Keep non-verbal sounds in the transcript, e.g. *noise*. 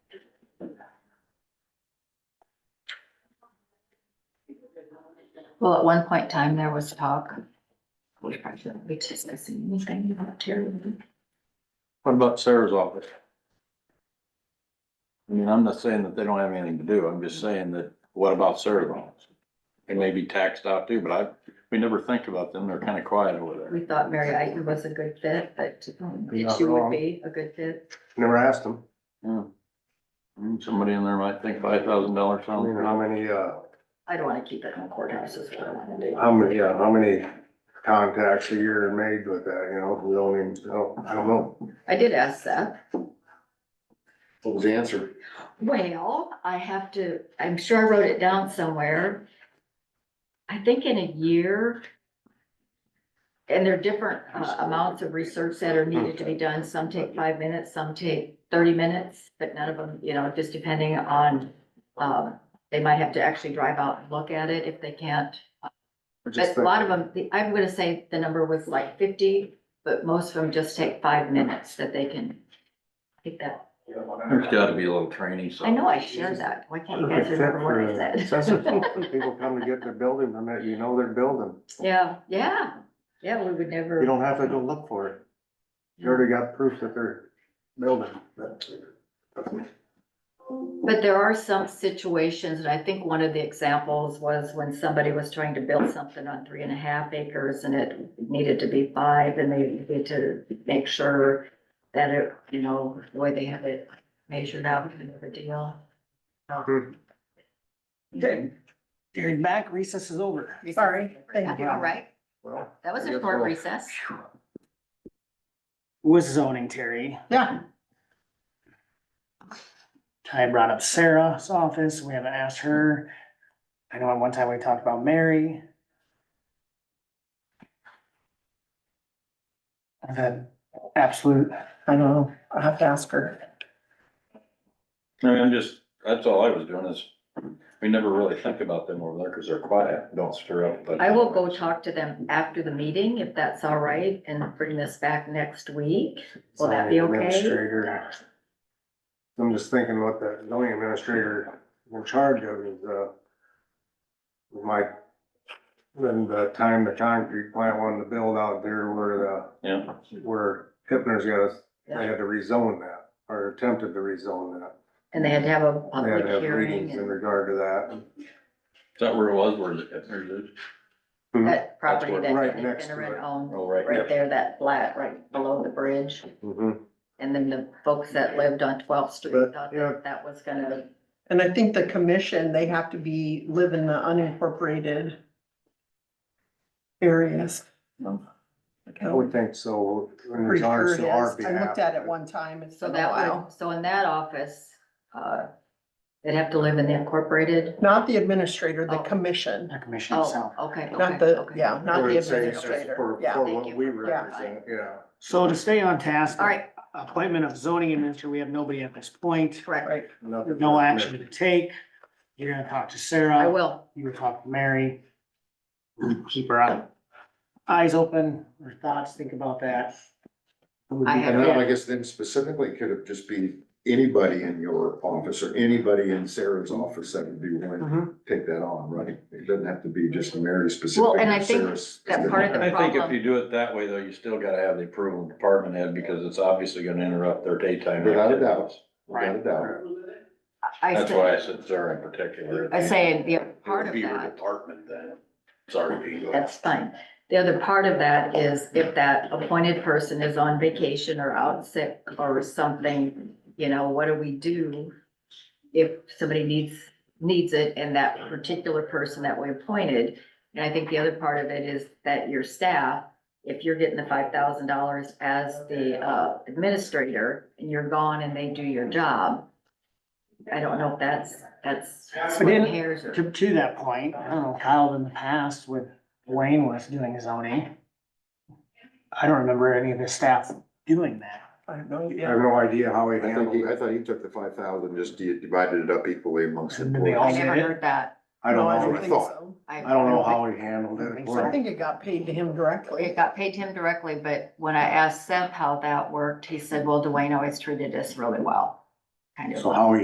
Well, at one point in time, there was talk. We probably shouldn't be discussing anything about Terry. What about Sarah's office? I mean, I'm not saying that they don't have anything to do, I'm just saying that, what about Sarah's office? They may be taxed out too, but I, we never think about them, they're kind of quiet over there. We thought Mary Eichner was a good fit, but um, You're not she would wrong. be a good fit. Never asked them. Yeah. Mm, Somebody in there might think five thousand dollars I mean, sounds, how many, uh, I don't wanna keep it in the courthouse is what I wanna do. how many, yeah, how many contacts a year are made with that, you know, we don't even, I don't, I don't know. I did ask Seth. What was the answer? Well, I have to, I'm sure I wrote it down somewhere. I think in a year. And there are different uh, amounts of research that are needed to be done. Some take five minutes, some take thirty minutes, but none of them, you know, just depending on, um, they might have to actually drive out and look at it if they can't. But a *laughs* lot of them, the- I'm gonna say the number was like fifty, but most of them just take five minutes that they can take that there's gotta be a little training, so. I know I shared that. Why can't you guys remember what I said? People come to get their building permit, you know they're building, *laughs* Yeah, yeah, yeah, we would never. you don't have to go look for it, you already got proof that they're building. But there are some situations, and I think one of the examples was when somebody was trying to build something on three and a half acres and it needed to be five and they needed to make sure that it, you know, the way they have it measured out and the deal. Okay. Jared back, recess is over. Sorry, thank you. All right, Well, that was I a guess short we'll- recess. Was zoning Terry. Yeah. I brought up Sarah's office. We haven't asked her. I know at one time we talked about Mary. I've had absolute, I don't know, I'll have to ask her. I mean, I'm just, that's all I was doing is, we never really think about them over there, cause they're quiet, don't stir up, but. I will go talk to them after the meeting, if that's all right, and bring this back next week. Will that be zoning okay? administrator. I'm just thinking what that zoning administrator in charge of is, uh, my, when the time the concrete plant wanted to build out there where Yeah, the, where Hipner's got, us, they Yeah. had to rezone that, or attempted to rezone that. And they had to have a They had public to have hearing meetings in and regard to that. is that where it was, where the, there's, that property where- that right Nick next to Finneran it. owned, oh, right, right there, that flat right below the bridge. Mhm. And then the folks that lived on twelfth street But, thought yeah. that that was gonna, And I think the commission, they have to be, live in the unincorporated areas. I would think so, in Pretty sure regards it to our is. behalf. I looked at it one time, it's so been a that while. would, so in that office, uh, they'd have to live in the incorporated. Not the administrator, the Oh. commission, Our commission Oh, itself. okay, okay. not the, okay. yeah, I not would the say it's administrator, For, yeah. for Thank what you we for clarifying. represent, yeah. So to stay on task. All right, Appointment of zoning administrator, we have nobody at this point. correct. Right, Nothing No for- action to take. You're gonna talk to Sarah. I will. you were talking to Mary. Keep her eye- eyes open, her thoughts, think about that. I have- And then I guess then specifically could have just be anybody in your office or anybody in Sarah's office that would be Mm-hmm. willing to take that on, right? It doesn't have to be just Mary specific. Well, and or I think Sarah's that part of the- I think if problem- you do it that way, though, you still gotta have the approval of department head, because it's obviously gonna interrupt their daytime. Without a activities. doubt. Without a doubt. I That's said- why I said Sarah in particular. I say the It part would of be her that, department then, sorry, Pete. go ahead. that's fine. The other part of that is if that appointed person is on vacation or out sick or something, you know, what do we do? If somebody needs, needs it and that particular person that we appointed. And I think the other part of it is that your staff, if you're getting the five thousand dollars as the uh, administrator and you're gone and they do your job. I don't know if that's, that's splitting hairs or. To, to that point, I don't know, Kyle in the past with Wayne was doing zoning. I don't remember any of his staff doing that. I have no I idea. have no idea how he I think handled he, I it. thought he took the five thousand, just di- divided it up equally amongst And then they I employees. never heard that. I don't No, know. what don't I think thought. so. I don't know how he handled I it. think I Well, think it got paid to him directly. It got paid to him directly, but when I asked Seth how that worked, he said, well, Dwayne always treated us really well. Kind of. So how he